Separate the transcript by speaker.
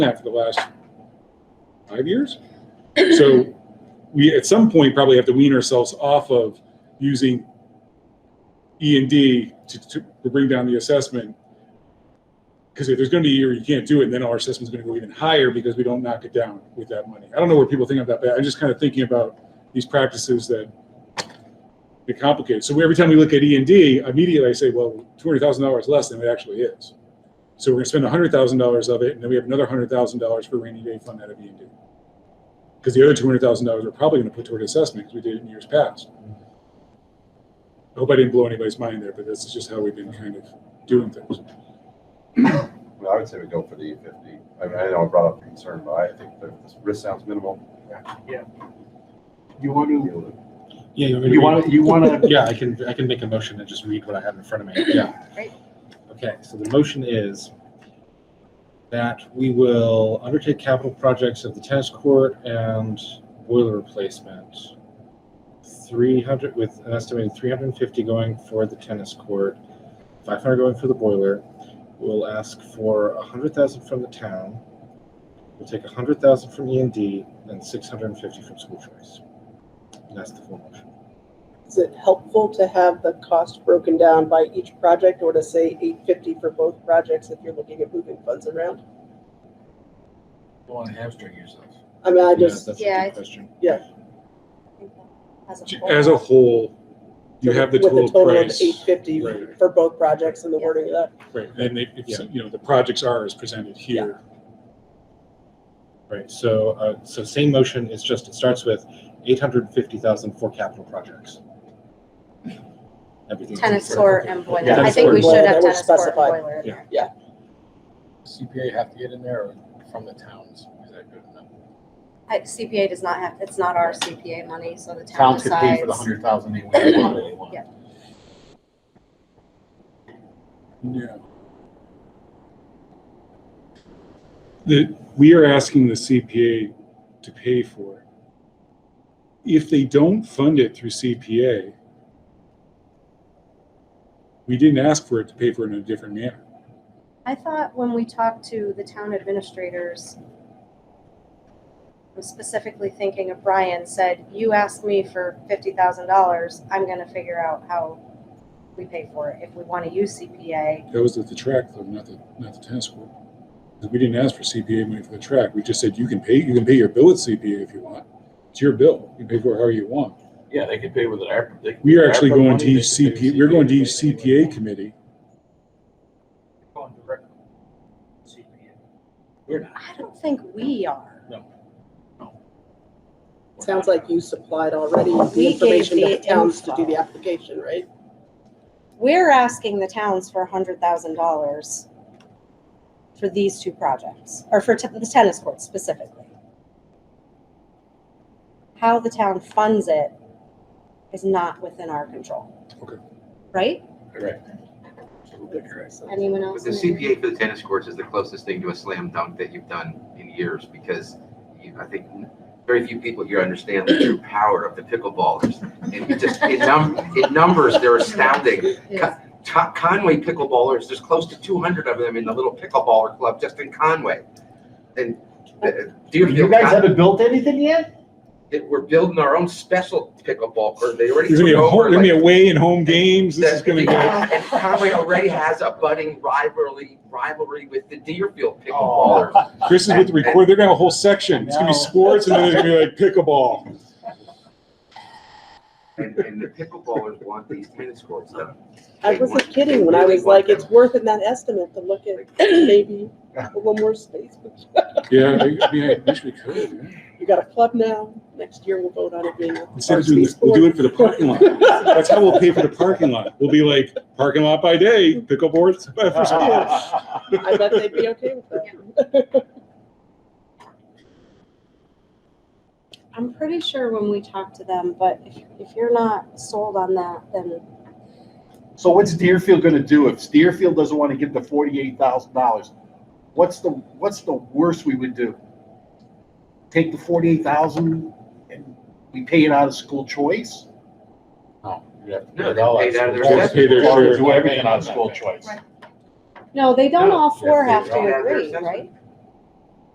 Speaker 1: that for the last five years. So we, at some point, probably have to wean ourselves off of using E and D to, to to bring down the assessment. Because if there's going to be a year you can't do it, then our assessment's going to go even higher because we don't knock it down with that money. I don't know where people think of that, but I'm just kind of thinking about these practices that get complicated. So every time we look at E and D, immediately I say, well, two hundred thousand dollars less than it actually is. So we're gonna spend hundred thousand dollars of it, and then we have another hundred thousand dollars for rainy day fund out of E and D. Because the other two hundred thousand dollars we're probably gonna put toward assessment, because we did it in years past. I hope I didn't blow anybody's mind there, but this is just how we've been kind of doing things.
Speaker 2: I mean, I would say we go for the E fifty. I mean, I know I brought up the concern, but I think the risk sounds minimal.
Speaker 3: You want to,
Speaker 4: Yeah, you want me to
Speaker 3: you
Speaker 4: read
Speaker 3: want to, you want
Speaker 4: it? Yeah, I can, I can make a motion and just read what I have in front of me. Yeah.
Speaker 5: Right.
Speaker 4: Okay, so the motion is that we will undertake capital projects of the tennis court and boiler replacement. Three hundred, with an estimated three hundred and fifty going for the tennis court, five hundred going for the boiler. We'll ask for a hundred thousand from the town. We'll take a hundred thousand from E and D and six hundred and fifty from school choice. And that's the full motion.
Speaker 6: Is it helpful to have the cost broken down by each project or to say eight fifty for both projects if you're looking at moving funds around?
Speaker 3: to want to hamstring yourself.
Speaker 6: I mean, I
Speaker 4: Yeah,
Speaker 6: just,
Speaker 4: That's a
Speaker 5: Yeah,
Speaker 4: good
Speaker 5: it's-
Speaker 4: question.
Speaker 1: As a whole, you have the
Speaker 6: with the
Speaker 1: total
Speaker 6: total of
Speaker 1: price.
Speaker 6: eight fifty
Speaker 1: Right.
Speaker 6: for both projects and the
Speaker 5: Yeah.
Speaker 6: wording of that.
Speaker 1: Right, and they, if, you know, the projects are as presented here.
Speaker 4: Right, so, uh, so same motion, it's just, it starts with eight hundred and fifty thousand for capital projects. Everything.
Speaker 5: Tennis court and boiler. I
Speaker 4: Tennis
Speaker 5: think we
Speaker 6: court.
Speaker 5: should have
Speaker 6: That was
Speaker 5: tennis court and
Speaker 6: specified.
Speaker 5: boiler in
Speaker 4: Yeah.
Speaker 5: there.
Speaker 3: CPA have to get in there or from the towns? Is that good enough?
Speaker 5: I- CPA does not have, it's not our CPA money, so the town
Speaker 3: Towns could pay
Speaker 5: decides.
Speaker 3: for the hundred thousand they want, they want.
Speaker 5: Yeah.
Speaker 1: Yeah. That we are asking the CPA to pay for it. If they don't fund it through CPA, we didn't ask for it to pay for it in a different manner.
Speaker 5: I thought when we talked to the town administrators, I'm specifically thinking of Brian said, you asked me for fifty thousand dollars, I'm gonna figure out how we pay for it, if we wanna use CPA.
Speaker 1: That was at the track though, not the, not the tennis court. 'Cause We didn't ask for CPA money for the track. We just said, you can pay, you can pay your bill at CPA if you want. It's your bill. You can pay for it however you want.
Speaker 7: Yeah, they could pay with an ARPA. they could
Speaker 1: We
Speaker 7: pay
Speaker 1: are
Speaker 7: with
Speaker 1: actually
Speaker 7: ARPA
Speaker 1: going
Speaker 7: money,
Speaker 1: to
Speaker 7: they
Speaker 1: each
Speaker 7: could pay
Speaker 1: CPA,
Speaker 7: with
Speaker 1: we're going to each
Speaker 7: anything they
Speaker 1: CPA
Speaker 7: want.
Speaker 1: committee
Speaker 3: Going direct CPA.
Speaker 7: We're not.
Speaker 5: I don't think we are.
Speaker 7: We're
Speaker 6: Sounds
Speaker 7: not.
Speaker 6: like you supplied already
Speaker 5: We
Speaker 6: the
Speaker 5: gave
Speaker 6: information to
Speaker 5: the
Speaker 6: the towns to do
Speaker 5: info.
Speaker 6: the application, right?
Speaker 5: We're asking the towns for hundred thousand dollars for these two projects, or for te- the tennis courts specifically. How the town funds it is not within our control.
Speaker 1: Okay.
Speaker 5: Right?
Speaker 7: Correct.
Speaker 5: Anyone
Speaker 8: But
Speaker 5: else?
Speaker 8: the
Speaker 5: in the-
Speaker 8: CPA for the tennis courts is the closest thing to a slam dunk that you've done in years because you, I think very few people here understand the true power of the pickleballers. And you just, in, num- in numbers, they're astounding.
Speaker 5: Yes.
Speaker 8: Con- Conway pickleballers, there's close to 200 of them in the little pickleballer club just in Conway. And uh, do you,
Speaker 3: You guys haven't built anything yet?
Speaker 8: that we're building our own special pickleball court. They already
Speaker 1: There's gonna be
Speaker 8: took
Speaker 1: a whole,
Speaker 8: over.
Speaker 1: there's gonna be
Speaker 8: like,
Speaker 1: away and home games. This is gonna go.
Speaker 8: that- And Conway already has a budding rivalry, rivalry with the Deerfield
Speaker 7: Oh,
Speaker 8: pickleballers.
Speaker 1: Chris is with the record. They're gonna have a whole section. It's gonna be
Speaker 3: I know.
Speaker 1: sports and then it's gonna be like pickleball.
Speaker 8: And, and the pickleballers want these tennis courts done.
Speaker 6: I
Speaker 8: They
Speaker 6: wasn't
Speaker 8: want-
Speaker 6: kidding
Speaker 8: they
Speaker 6: when I
Speaker 8: really
Speaker 6: was
Speaker 8: want
Speaker 6: like, it's
Speaker 8: them.
Speaker 6: worth in that estimate to look at maybe a little more space.
Speaker 1: Yeah, I I mean, I wish we could. yeah.
Speaker 6: We got a club now, next year we'll vote on it being. a
Speaker 1: Instead of
Speaker 6: varsity
Speaker 1: doing, this, we'll
Speaker 6: sport.
Speaker 1: do it for the parking lot. That's how we'll pay for the parking lot. We'll be like, parking lot by day, pickleboards for sports.
Speaker 6: I bet they'd be okay with that.
Speaker 5: I'm pretty sure when we talked to them, but if, if you're not sold on that, then
Speaker 3: So what's Deerfield gonna do if Deerfield doesn't want to give the forty-eight thousand dollars? What's the, what's the worst we would do? Take the forty-eight thousand and we pay it out of school choice?
Speaker 7: No, you have to
Speaker 8: No,
Speaker 7: pay it
Speaker 8: they
Speaker 7: all
Speaker 8: paid out
Speaker 7: out
Speaker 8: of
Speaker 7: of
Speaker 8: their
Speaker 7: school
Speaker 1: Just pay their
Speaker 7: choice.
Speaker 1: share.
Speaker 3: Do everything out of school choice.
Speaker 5: No, they don't all four
Speaker 8: Yeah,
Speaker 5: have
Speaker 8: they
Speaker 5: to
Speaker 8: all have their
Speaker 5: agree,
Speaker 8: assessment.
Speaker 5: right?